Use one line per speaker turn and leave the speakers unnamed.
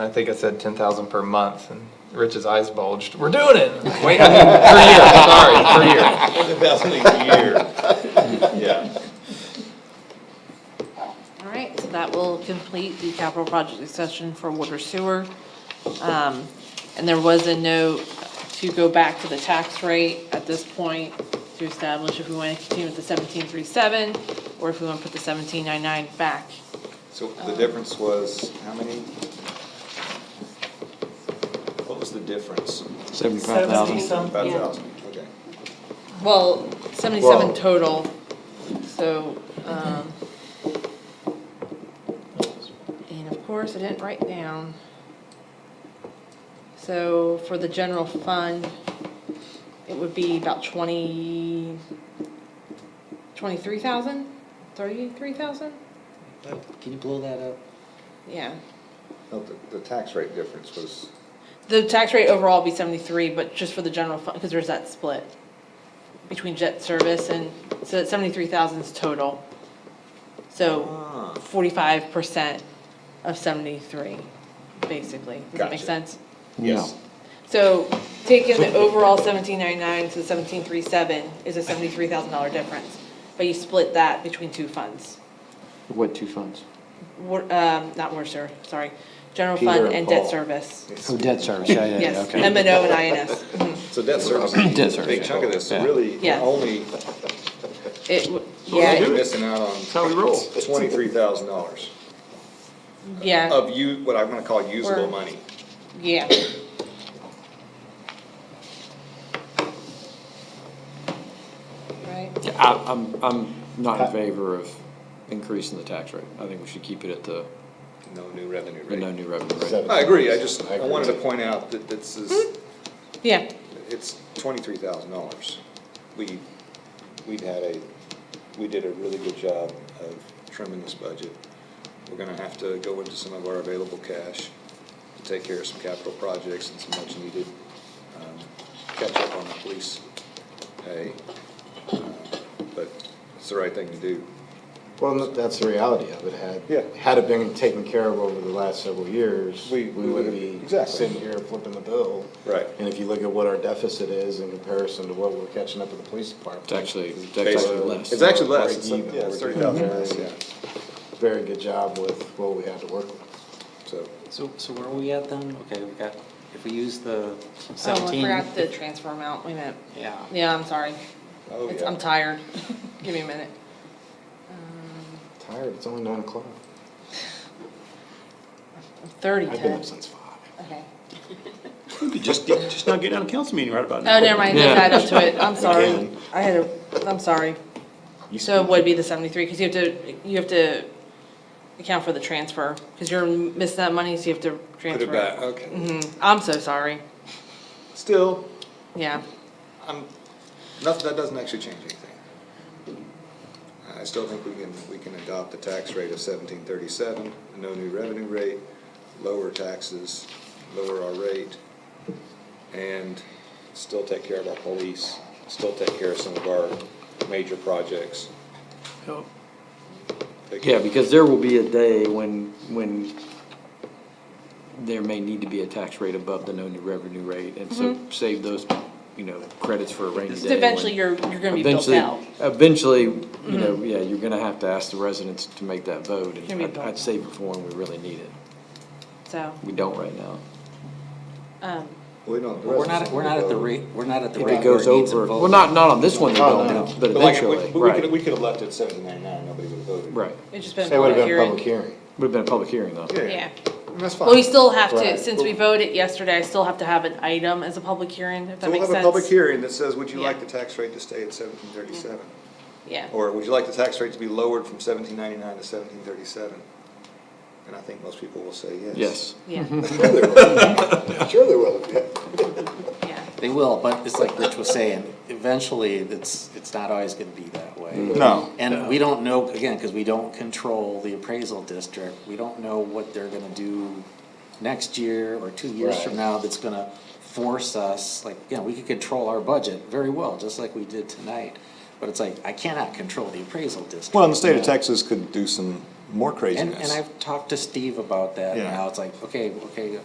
I think I said ten thousand per month, and Rich's eyes bulged. We're doing it. Wait, I mean, per year. Sorry, per year.
thousand a year. Yeah.
All right, so that will complete the capital project session for water sewer. Um, And there was a note to go back to the tax rate at this point to establish if we want to continue with the seventeen three seven or if we want to put the seventeen nine nine back.
So the difference was how many? What was the difference?
Seventy-five thousand.
About a
Um, Yeah.
thousand, okay.
Well,
Whoa.
seventy-seven total, so, um. And of course, I didn't write down. So for the general fund, it would be about twenty, twenty-three thousand, thirty-three thousand?
Can you blow that up?
Yeah.
No, the, the tax rate difference was,
The tax rate overall would be seventy-three, but just for the general fund, because there's that split between jet service and, so that seventy-three thousand is total.
Ah.
So forty-five percent of seventy-three, basically. Does that make
Gotcha.
sense?
yes,
So taking the overall seventeen nine-nine to the seventeen three-seven is a seventy-three thousand dollar difference. But you split that between two funds,
What two funds?
Wa- um, not Worcester, sorry, general
Peter
fund
and
and debt
Paul.
service.
Oh, debt service, yeah, yeah, yeah,
Yes,
okay.
M and O and INS. Mhm.
so debt service,
Debt
is a
service,
big
yeah.
chunk of this, so
Yeah.
really, you're
Yeah.
only,
It, w-
you're
yeah,
only
it-
missing out on
how we roll.
twenty-three thousand dollars
yeah,
of you, what I'm gonna call usable
Or-
money.
yeah. Right,
Yeah, I, I'm, I'm not in favor of increasing the tax rate. I think we should keep it at the,
No new revenue
the no
rate.
new revenue rate.
Seven.
I agree, I just, I
I agree.
wanted to point out that this is,
yeah, Oh,
it's twenty-three thousand dollars. We, we've had a, we did a really good job of trimming this budget. We're gonna have to go into some of our available cash to take care of some capital projects and some much needed, um, catch up on the police pay. Um, But it's the right thing to do.
Well, no, that's the reality of it.
Yeah.
Had, had it been taken care of over the last several years,
We-
we
we would've-
would be
exactly.
sitting here flipping the bill.
Right.
And if you look at what our deficit is in comparison to what we're catching up with the police department.
It's actually, it's actually less.
It's actually less, it's,
Break even.
yeah, it's thirty thousand less, yeah,
Very good job with what we had to work with.
so.
So, so where are we at then? Okay, we got, if we use the
so I
seventeen.
forgot the transfer amount, wait a minute,
Yeah.
yeah, I'm sorry,
Oh,
It's-
yeah.
I'm tired, give me a minute.
Tired, it's only nine o'clock.
I'm thirty
I've been
ten,
up since five.
okay.
Just, just not get out of council meeting right about now.
Oh, never mind, let's
Yeah.
add up to it, I'm sorry,
Again.
I had a, I'm sorry.
You
So it
speak-
would be the seventy-three, because you have to, you have to account for the transfer, because you're missing that money, so you have to
Put
transfer.
it back, okay.
Mm, I'm so sorry,
Still,
yeah,
I'm, nothing, that doesn't actually change anything. I still think we can, we can adopt the tax rate of seventeen thirty-seven, no new revenue rate, lower taxes, lower our rate, and still take care of our police, still take care of some of our major projects. Take-
Yeah, because there will be a day when, when there may need to be a tax rate above the no new revenue rate. And so save those, you know, credits for a rainy
Mm-hmm. Just
day. when-
eventually you're, you're gonna be built
Eventually,
out. Mm-hmm.
eventually, you know, yeah, you're gonna have to ask the residents to make that vote.
Gonna
And
be
I'd-
built out.
I'd save it for when we really need it.
So,
We don't right now.
um,
We don't.
We're not, we're not at the rate, we're not at the
If
rate
it
where
goes
it needs
over,
a vote.
well, not, not on this one, they
No,
don't,
no.
but
Oh, But like, if we-
eventually,
but we could,
right,
we could have left it seventeen ninety-nine, nobody would have voted.
right.
it's just been
Say it
a
would've
public
been a public
hearing.
hearing.
Would've been a public hearing though.
Yeah,
And that's fine.
well, we still have to,
Right.
since we voted yesterday, I still have to have an item as a public hearing,
So
if that
we'll
makes sense.
have a public hearing that says, would you
Yeah.
like the tax rate to stay at seventeen thirty-seven?
Yeah,
Or would you like the tax rate to be lowered from seventeen ninety-nine to seventeen thirty-seven? And I think most people will say yes.
Yes,
yeah,
Sure they will.
yeah.
They will, but it's like Rich was saying, eventually, it's, it's not always gonna be that way.
Mm-hmm.
No.
And we don't know, again, because we don't control the appraisal district, we don't know what they're gonna do next year or two years from
Right.
now that's gonna force us, like, you know, we could control our budget very well, just like we did tonight. But it's like, I cannot control the appraisal district.
Well, and the state of Texas could do some
more
And,
craziness.
and I've talked to Steve about that, and
Yeah.
how it's like, okay, okay,